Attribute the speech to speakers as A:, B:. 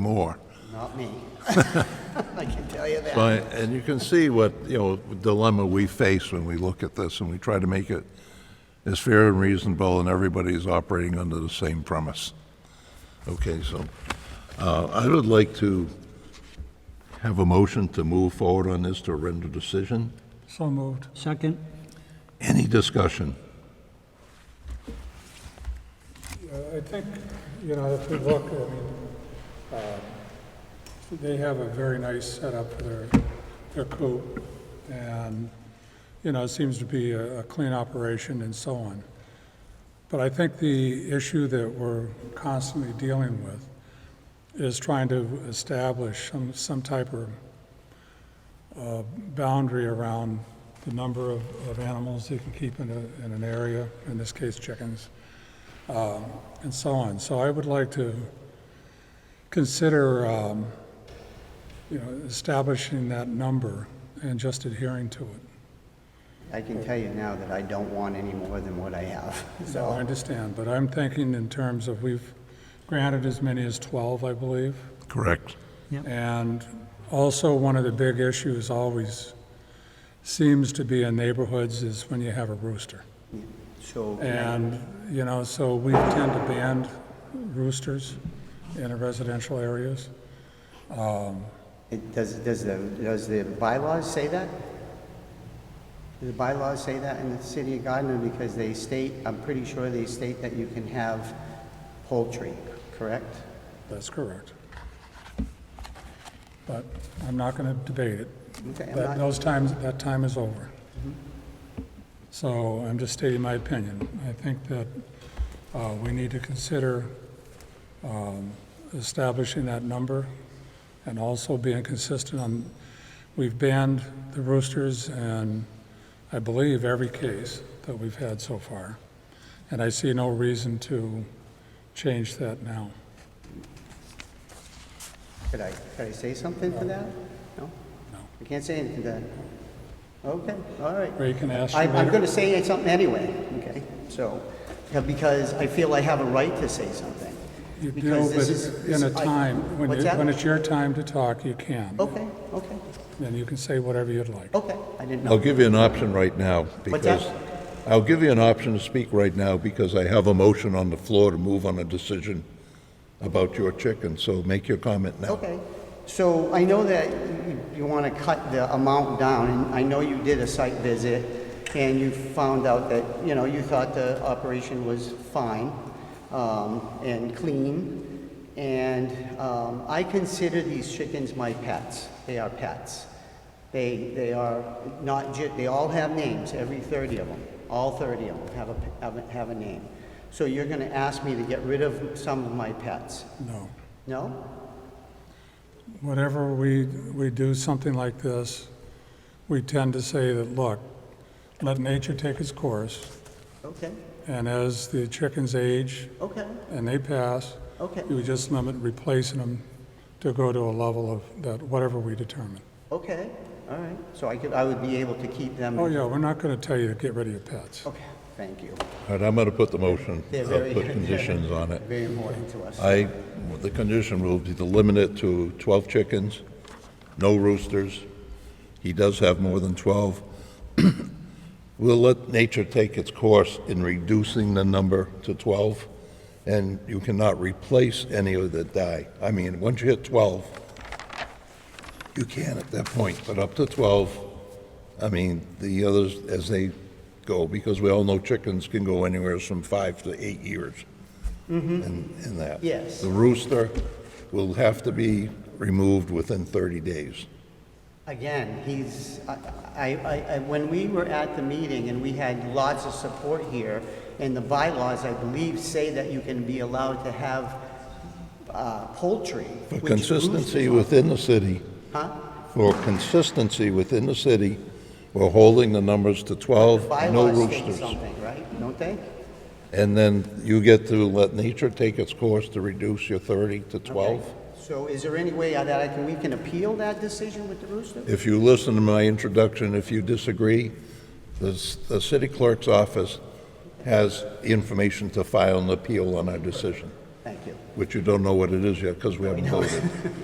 A: more.
B: Not me. I can tell you that.
A: But, and you can see what, you know, dilemma we face when we look at this, and we try to make it as fair and reasonable, and everybody's operating under the same premise. Okay, so, uh, I would like to have a motion to move forward on this to render decision.
C: So moved.
D: Second?
A: Any discussion?
C: I think, you know, if you look, I mean, um, they have a very nice setup for their, their coop, and, you know, it seems to be a a clean operation and so on. But I think the issue that we're constantly dealing with is trying to establish some, some type of uh, boundary around the number of, of animals you can keep in a, in an area, in this case chickens. and so on. So I would like to consider, um, you know, establishing that number and just adhering to it.
B: I can tell you now that I don't want any more than what I have.
C: So
B: So,
C: I understand, but I'm thinking in terms of we've granted as many as 12, I believe.
A: Correct.
C: And also, one of the big issues always seems to be in neighborhoods is when you have a rooster.
B: so,
C: And, you know, so we tend to ban roosters in residential areas.
B: it- does, does the, does the bylaws say that? Do the bylaws say that in the city of Gardner? Because they state, I'm pretty sure they state that you can have poultry, correct?
C: That's correct. But I'm not going to debate it.
B: Okay,
C: That-
B: I'm not,
C: Those times, that time is over. So I'm just stating my opinion. I think that uh, we need to consider um, establishing that number and also being consistent on, we've banned the roosters and I believe every case that we've had so far. And I see no reason to change that now.
B: could I, could I say something to that? No?
C: No.
B: I can't say anything to that. Okay, all right.
C: Ray can ask you
B: I- I'm going
C: later.
B: to say something anyway, okay? So, yeah, because I feel I have a right to say something.
C: You
B: because
C: do,
B: this
C: but
B: is-
C: in a
B: I-
C: time, when
B: What's
C: you-
B: that? Oh.
C: when it's your time to talk, you can.
B: Okay, okay,
C: And you can say whatever you'd like.
B: okay, I didn't
A: I'll
B: know.
A: give you an option right now, because,
B: that?
A: I'll give you an option to speak right now, because I have a motion on the floor to move on a decision about your chicken, so make your comment now.
B: Okay, so I know that you- you want to cut the amount down, and I know you did a site visit, and you found out that, you know, you thought the operation was fine um, and clean, and um, I consider these chickens my pets. They are pets. They, they are not, ju- they all have names, every 30 of them. All 30 of them have a, have a, have a name. So you're going to ask me to get rid of some of my pets?
C: No.
B: No?
C: Whenever we, we do something like this, we tend to say that, look, let nature take its course,
B: Okay,
C: and as the chickens age
B: okay,
C: and they pass,
B: okay,
C: you just limit replacing them to go to a level of that, whatever we determine.
B: okay, all right. So I could, I would be able to keep them?
C: Oh, yeah, we're not going to tell you to get rid of your pets.
B: Okay, thank you.
A: All right, I'm going to put the motion,
B: They're
A: I'll
B: very.
A: put conditions on it.
B: Very important to us.
A: I, the condition will be to limit it to 12 chickens, no roosters. He does have more than 12. We'll let nature take its course in reducing the number to 12, and you cannot replace any of that die. I mean, once you hit 12, you can at that point, but up to 12, I mean, the others, as they go, because we all know chickens can go anywhere from five to eight years in, in that.
B: Mm-hmm. Yes.
A: The rooster will have to be removed within 30 days.
B: Again, he's, I, I, I, when we were at the meeting and we had lots of support here, and the bylaws, I believe, say that you can be allowed to have uh, poultry.
A: For
B: which
A: consistency
B: roosters-
A: within the city,
B: Huh?
A: for consistency within the city, we're holding the numbers to 12, no
B: Bylaws state
A: roosters.
B: something, right? Don't they?
A: And then you get to let nature take its course to reduce your 30 to 12.
B: So is there any way that I can, we can appeal that decision with the rooster?
A: If you listen to my introduction, if you disagree, the, s- the city clerk's office has information to file an appeal on our decision.
B: Thank you.
A: which you don't know what it is yet because we haven't voted.